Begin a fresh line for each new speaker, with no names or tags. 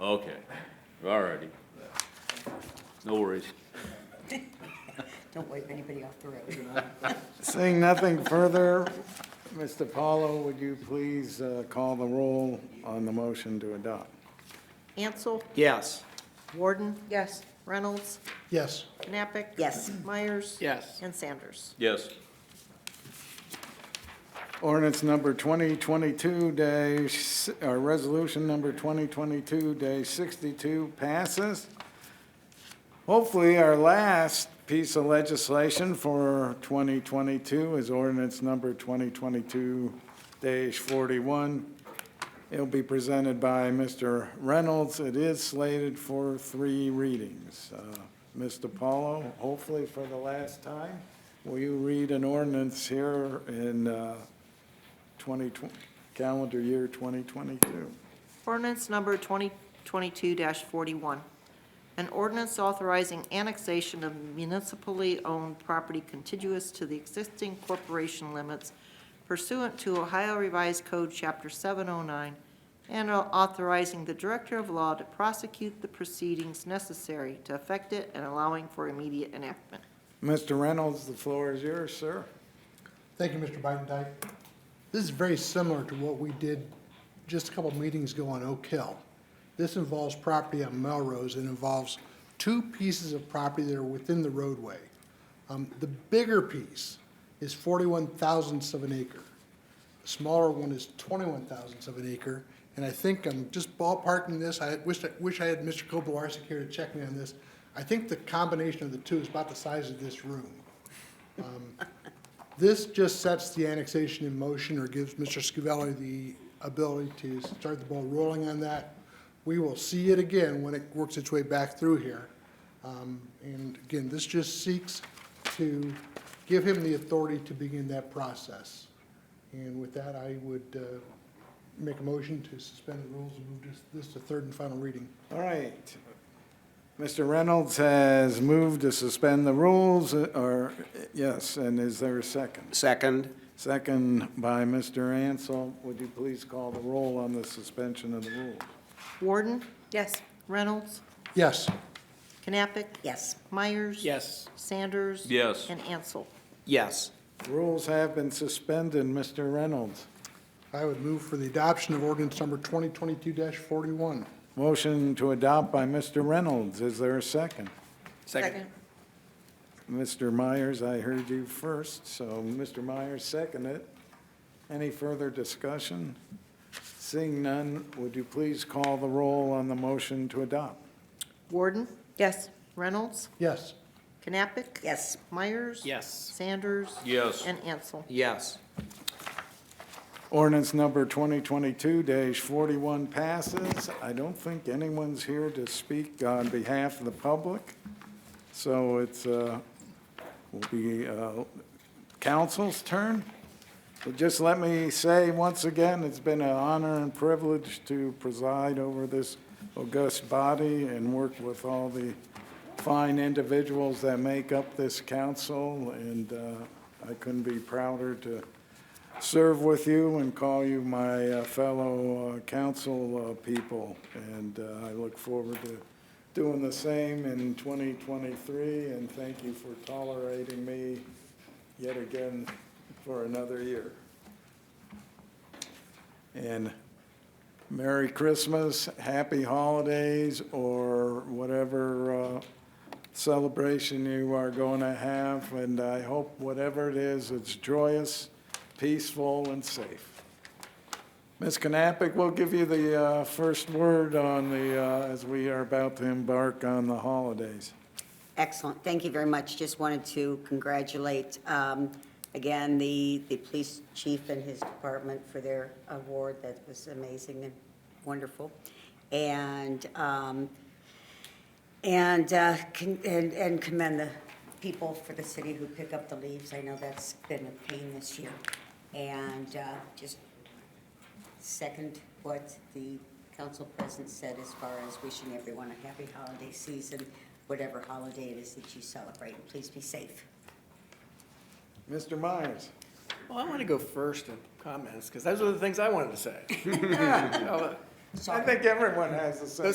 Okay, all righty. No worries.
Don't wave anybody off the road.
Seeing nothing further, Mr. Paulo, would you please uh, call the roll on the motion to adopt?
Ansel,
Yes.
Warden,
Yes.
Reynolds,
Yes,
Knappich.
Yes.
Myers.
Yes.
And Sanders.
Yes,
Ordinance number 2022 dash, or resolution number 2022 dash 62 passes. Hopefully, our last piece of legislation for 2022 is ordinance number 2022 dash 41. It'll be presented by Mr. Reynolds. It is slated for three readings. Uh, Mr. Paulo, hopefully for the last time, will you read an ordinance here in uh, 2020, calendar year 2022?
Ordinance number 2022-41. An ordinance authorizing annexation of municipally-owned property contiguous to the existing corporation limits pursuant to Ohio Revised Code, Chapter 709, and authorizing the Director of Law to prosecute the proceedings necessary to effect it and allowing for immediate enactment.
Mr. Reynolds, the floor is yours, sir.
thank you, Mr. Bidendyke. This is very similar to what we did just a couple meetings ago on Oak Hill. This involves property on Melrose and involves two pieces of property that are within the roadway. Um, The bigger piece is 41 thousandths of an acre. The smaller one is 21 thousandths of an acre. And I think I'm just ballparking this, I wish, I wish I had Mr. Kobelarsek here to check me on this. I think the combination of the two is about the size of this room. This just sets the annexation in motion or gives Mr. Scavelli the ability to start the ball rolling on that. We will see it again when it works its way back through here. Um, And again, this just seeks to give him the authority to begin that process. And with that, I would uh, make a motion to suspend the rules and move this- this to third and final reading.
All right. Mr. Reynolds has moved to suspend the rules, uh, or, yes, and is there a second?
Second,
Second by Mr. Ansel. Would you please call the roll on the suspension of the rules?
Warden,
Yes.
Reynolds,
Yes,
Knappich,
Yes.
Myers.
Yes.
Sanders.
Yes.
And Ansel.
yes.
Rules have been suspended, Mr. Reynolds.
I would move for the adoption of ordinance number 2022-41.
Motion to adopt by Mr. Reynolds. Is there a second?
Second,
Mr. Myers, I heard you first, so Mr. Myers seconded. it. Any further discussion? Seeing none, would you please call the roll on the motion to adopt?
Warden,
Yes.
Reynolds,
Yes.
Knappich.
Yes.
Myers.
yes.
Sanders.
Yes.
And Ansel.
Yes.
Ordinance number 2022-41 passes. I don't think anyone's here to speak on behalf of the public, so it's, uh, will be uh, council's turn. But just let me say once again, it's been an honor and privilege to preside over this august body and work with all the fine individuals that make up this council, and uh, I couldn't be prouder to serve with you and call you my uh, fellow uh, council uh, people. And uh, I look forward to doing the same in 2023, and thank you for tolerating me yet again for another year. And Merry Christmas, Happy Holidays, or whatever uh, celebration you are going to have. And I hope whatever it is, it's joyous, peaceful, and safe. Ms. Knappich, we'll give you the uh, first word on the, uh, as we are about to embark on the holidays.
Excellent. Thank you very much. Just wanted to congratulate, um, again, the, the police chief and his department for their award. That was amazing and wonderful. And, um, and, uh, con- and and commend the people for the city who pick up the leaves. I know that's been a pain this year. And uh, just second what the council president said as far as wishing everyone a happy holiday season, whatever holiday it is that you celebrate, and please be safe.
Mr. Myers?
Well, I want to go first in comments, because those are the things I wanted to say.
I think everyone has the same.